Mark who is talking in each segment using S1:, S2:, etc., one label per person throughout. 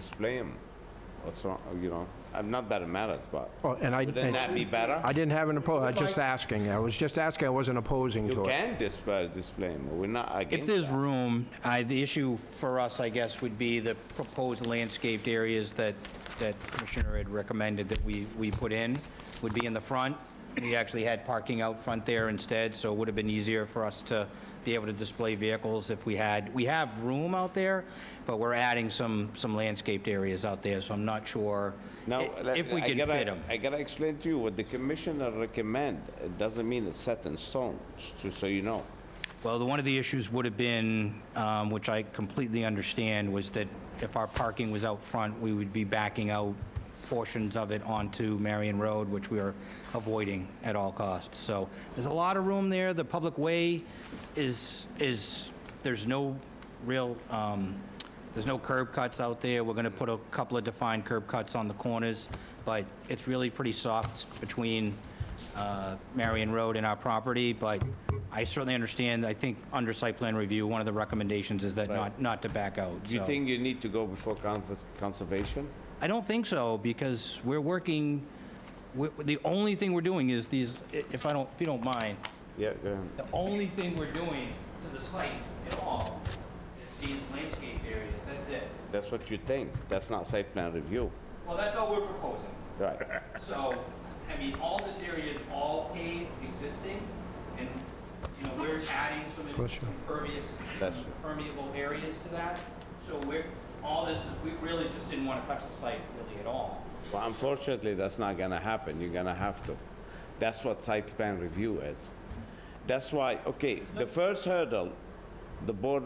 S1: display them. What's wrong, you know, I'm not that it matters, but
S2: Well, And I,
S1: wouldn't that be better?
S2: Oh, I didn't have an opposed, I was just asking, I was just asking, I wasn't opposing
S1: You
S2: to it.
S1: can display, display them, we're not
S3: If
S1: against
S3: there's
S1: that.
S3: room, I, the issue for us, I guess, would be the proposed landscaped areas that, that Commissioner had recommended that we, we put in, would be in the front. We actually had parking out front there instead, so it would have been easier for us to be able to display vehicles if we had, we have room out there, but we're adding some, some landscaped areas out there, so I'm not sure
S1: Now,
S3: i-
S1: let-
S3: if we
S1: I
S3: can
S1: gotta-
S3: fit them.
S1: I gotta explain to you, what the commissioner recommend, it doesn't mean it's set in stone, just to- so you know.
S3: Well, the- one of the issues would have been, um, which I completely understand, was that if our parking was out front, we would be backing out portions of it onto Marion Road, which we are avoiding at all costs. So there's a lot of room there. The public way is, is, there's no real, um, there's no curb cuts out there. We're going to put a couple of defined curb cuts on the corners, but it's really pretty soft between uh, Marion Road and our property, but I certainly understand, I think, under site plan review, one of the recommendations is that not, not to back out,
S1: Do you
S3: so-
S1: think you need to go before con- conservation?
S3: I don't think so, because we're working, we- the only thing we're doing is these, i- if I don't, if you don't mind,
S1: Yeah, go ahead.
S3: the only thing we're doing to the site at all is these landscape areas, that's it.
S1: That's what you think, that's not site plan review,
S3: Well, that's all we're proposing.
S1: right?
S3: So, I mean, all this area is all paved, existing, and, you know, we're adding some impervious,
S1: That's-
S3: permeable areas to that. So we're, all this, is we really just didn't want to touch the site really at all.
S1: Well, unfortunately, that's not gonna happen, you're gonna have to. That's what site plan review is. That's why, okay, the first hurdle, the board,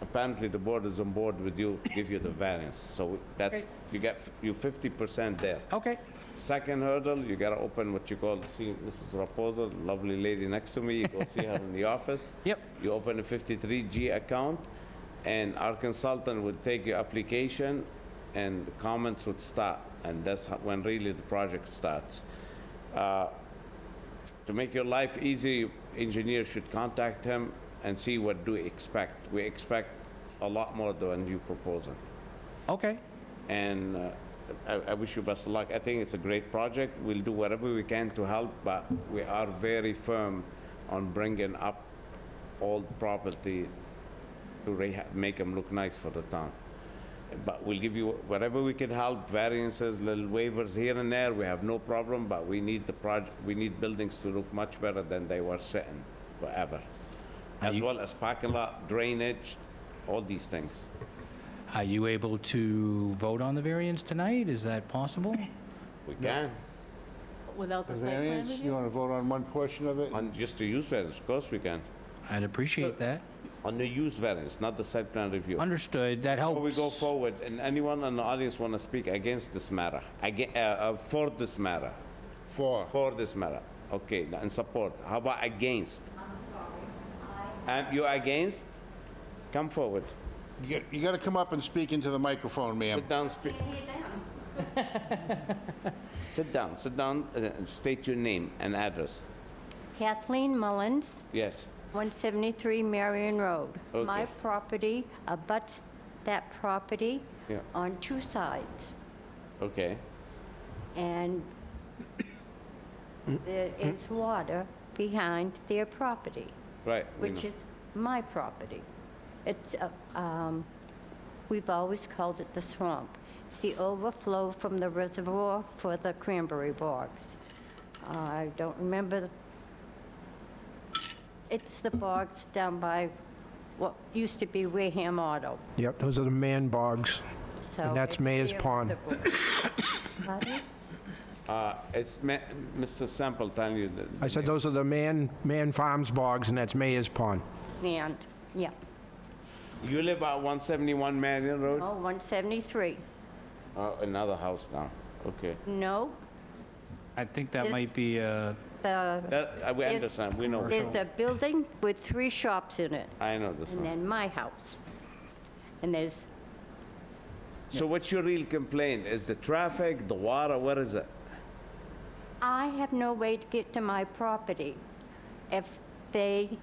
S1: apparently the board is on board with you, give you the variance, so that's, you get, you 50% there.
S3: Okay.
S1: Second hurdle, you gotta open what you call, see Mrs. Raposo, lovely lady next to me, you go see her in the office.
S3: Yep.
S1: You open a 53G account, and our consultant would take your application, and the comments would start, and that's how- when really the project starts. Uh, To make your life easy, engineer should contact him and see what do we expect. We expect a lot more than you proposing
S3: Okay.
S1: and uh, I, I wish you best of luck. I think it's a great project. We'll do whatever we can to help, but we are very firm on bringing up old property to reha- make them look nice for the town. But we'll give you whatever we can help, variances, little waivers here and there. We have no problem, but we need the project, we need buildings to look much better than they were sitting forever. As well as parking lot, drainage, all these things.
S3: Are you able to vote on the variance tonight? Is that possible?
S1: We can.
S4: Without the site plan
S5: variance, you
S4: review?
S5: want to vote on one portion of it?
S1: On just the use variance, of course we can.
S3: I'd appreciate that.
S1: On the use variance, not the site plan review.
S3: Understood, that helps.
S1: Before we go forward, and anyone in the audience want to speak against this matter, aga- uh, uh, for this matter,
S5: Four.
S1: for this matter, okay, and support, how about against? I'm sorry, You're against? Come forward,
S5: You got to come up and speak into the microphone, ma'am.
S1: sit down, speak. Sit down, sit down, uh, and state your name and address,
S4: Kathleen Mullins,
S1: yes.
S4: 173 Marion Road. My
S1: Okay.
S4: property abuts that property
S1: Yeah.
S4: on two sides,
S1: Okay,
S4: and there is water behind their property,
S1: right. we
S4: which
S1: know.
S4: is my property. It's, a- um, we've always called it the swamp. It's the overflow from the reservoir for the cranberry bogs. I don't remember the It's the bogs down by what used to be Wareham Auto,
S2: Yep, those are the man bogs.
S4: so...
S2: And that's
S4: it's
S2: Mayor's
S4: their
S2: Pond.
S4: reservoir. Pardon?
S1: Uh, It's Ma- Mr. Sample telling you that.
S2: I said those are the man, man farms bogs, and that's Mayor's Pond.
S4: And, yeah,
S1: You live at 171 Marion Road?
S4: oh, 173.
S1: Oh, another house now, okay.
S4: No,
S3: I think that
S4: Yes.
S3: might be, uh,
S4: the,
S1: That, uh, we
S4: If-
S1: understand, we know,
S4: there's a building with three shops in it,
S1: I know this
S4: and
S1: one.
S4: then my house. And there's,
S1: So what's your real complaint? Is the traffic, the water, what is it?
S4: I have no way to get to my property. If they,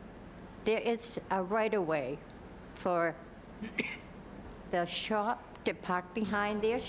S4: there is a right-of-way for the shop that park behind there